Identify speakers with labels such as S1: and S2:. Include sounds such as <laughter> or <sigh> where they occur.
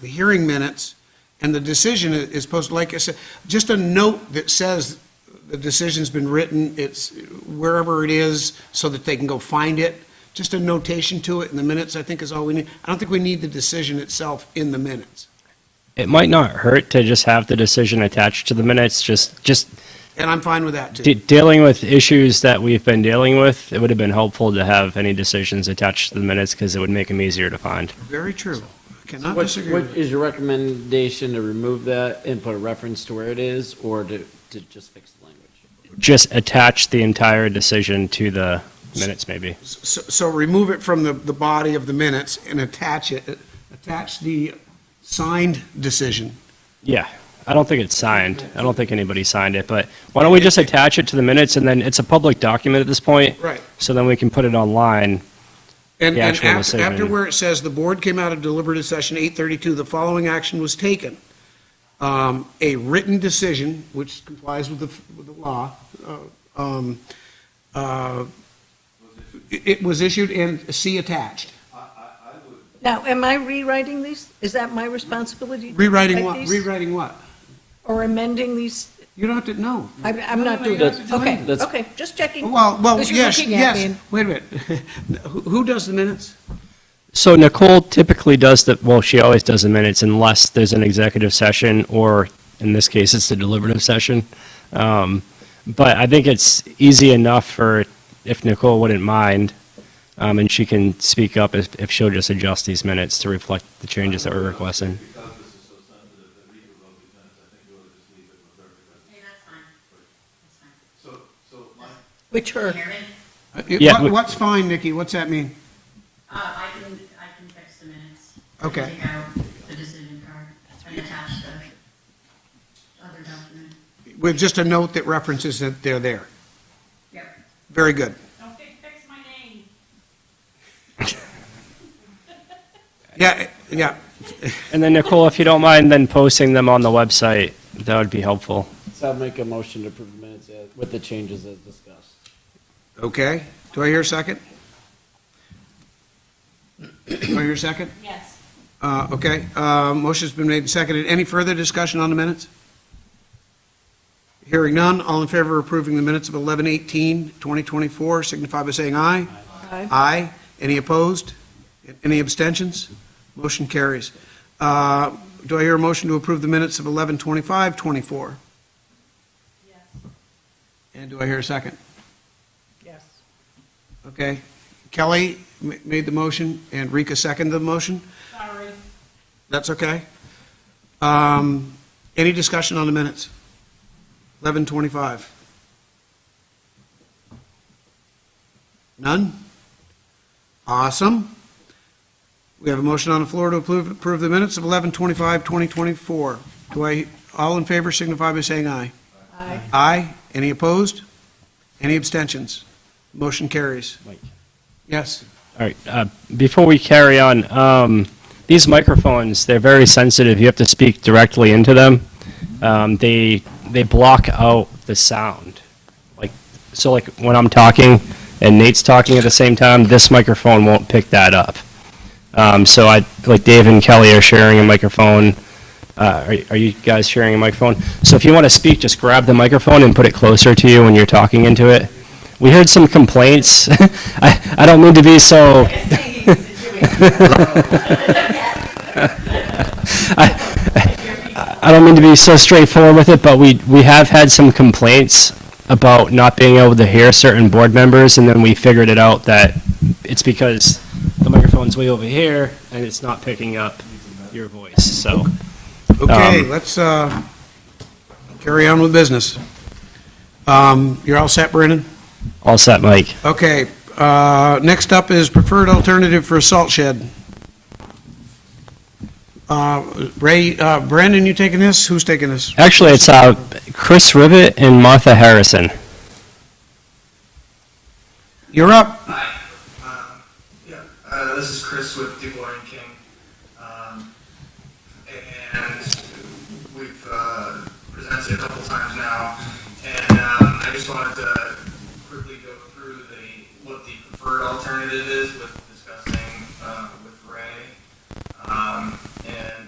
S1: the hearing minutes, and the decision i- is posted, like I said, just a note that says the decision's been written, it's wherever it is, so that they can go find it. Just a notation to it in the minutes, I think is all we need. I don't think we need the decision itself in the minutes.
S2: It might not hurt to just have the decision attached to the minutes, just, just
S1: And I'm fine with that, too.
S2: de- dealing with issues that we've been dealing with. It would have been helpful to have any decisions attached to the minutes because it would make them easier to find.
S1: Very true. I Cannot
S3: What,
S1: disagree
S3: what
S1: with it.
S3: is your recommendation to remove that and put a reference to where it is, or to, to just fix the language?
S2: Just attach the entire decision to the minutes, maybe.
S1: So, so remove it from the, the body of the minutes and attach it, attach the signed decision.
S2: Yeah, I don't think it's signed. I don't think anybody signed it, but why don't we just attach it to the minutes and then it's a public document at this point?
S1: Right.
S2: So then we can put it online.
S1: And,
S2: The
S1: and
S2: actual
S1: after,
S2: decision.
S1: after where it says, the board came out of deliberative session eight thirty-two, the following action was taken. Um, a written decision, which complies with the, with the law, uh, um, uh, it, it was issued and see attached.
S4: Now, am I rewriting these? Is that my responsibility? to
S1: Rewriting
S4: rewrite
S1: what,
S4: these?
S1: rewriting what?
S4: Or amending these?
S1: You don't have to, no.
S4: I- I'm not doing
S3: That's-
S4: that. Okay,
S3: that's-
S4: okay, just checking.
S1: Well, well,
S4: Because you're
S1: yes,
S4: looking at me
S1: yes.
S4: and-
S1: Wait a minute. <laughs> Who who does the minutes?
S2: So Nicole typically does the, well, she always does the minutes unless there's an executive session, or in this case, it's a deliberative session. Um, But I think it's easy enough for, if Nicole wouldn't mind, um, and she can speak up if, if she'll just adjust these minutes to reflect the changes that we're requesting.
S5: Because this is so sensitive that we could vote these minutes, I think we ought to just leave it with her because.
S6: Hey, that's fine. That's fine.
S5: So, so my,
S4: Which her?
S6: Chairman,
S1: Uh, it-
S2: Yeah,
S1: what-
S2: we-
S1: What's fine, Nikki? What's that mean?
S6: uh, I can, I can fix the minutes.
S1: Okay.
S6: Take out the decision card and attach the other document.
S1: With just a note that references that they're there.
S6: Yep.
S1: Very good.
S6: Don't fix my name.
S1: Yeah, yeah.
S2: And then Nicole, if you don't mind, then posting them on the website, that would be helpful.
S3: So I'll make a motion to approve the minutes as- with the changes as discussed.
S1: Okay. Do I hear a second? Do I hear a second?
S6: Yes.
S1: Uh, Okay. Uh, Motion's been made and seconded. Any further discussion on the minutes? Hearing none. All in favor of approving the minutes of 11/18/2024 signify by saying aye.
S4: Aye.
S1: Aye. Any opposed? Any abstentions? Motion carries. Uh, Do I hear a motion to approve the minutes of 11:25:24?
S6: Yes.
S1: And do I hear a second?
S4: Yes.
S1: Okay. Kelly ma- made the motion, and Rika seconded the motion?
S6: Sorry.
S1: That's okay. Um, Any discussion on the minutes? 11:25. None? Awesome. We have a motion on the floor to approve approve the minutes of 11:25, 2024. Do I, all in favor signify by saying aye.
S4: Aye.
S1: Aye. Any opposed? Any abstentions? Motion carries.
S3: Mike.
S1: Yes.
S2: All right, uh, before we carry on, um, these microphones, they're very sensitive. You have to speak directly into them. Um, They, they block out the sound. Like, so like when I'm talking and Nate's talking at the same time, this microphone won't pick that up. Um, So I, like Dave and Kelly are sharing a microphone. Uh, Are are you guys sharing a microphone? So if you want to speak, just grab the microphone and put it closer to you when you're talking into it. We heard some complaints. <laughs> I, I don't mean to be so. <laughs> I, I don't mean to be so straightforward with it, but we, we have had some complaints about not being able to hear certain board members, and then we figured it out that it's because the microphone's way over here and it's not picking up your voice. So,
S1: Okay,
S2: Um,
S1: let's uh, carry on with business. Um, You're all set, Brennan?
S2: all set, Mike.
S1: Okay, uh, next up is preferred alternative for a salt shed. Uh, Ray, uh, Brandon, you taking this? Who's taking this?
S2: Actually, it's uh, Chris Rivet and Martha Harrison.
S1: You're up.
S7: Um, Yeah, uh, this is Chris with DuBois and King. Um, and we've uh, presented a couple times now, and um, I just wanted to quickly go through the what the preferred alternative is with uh, Um,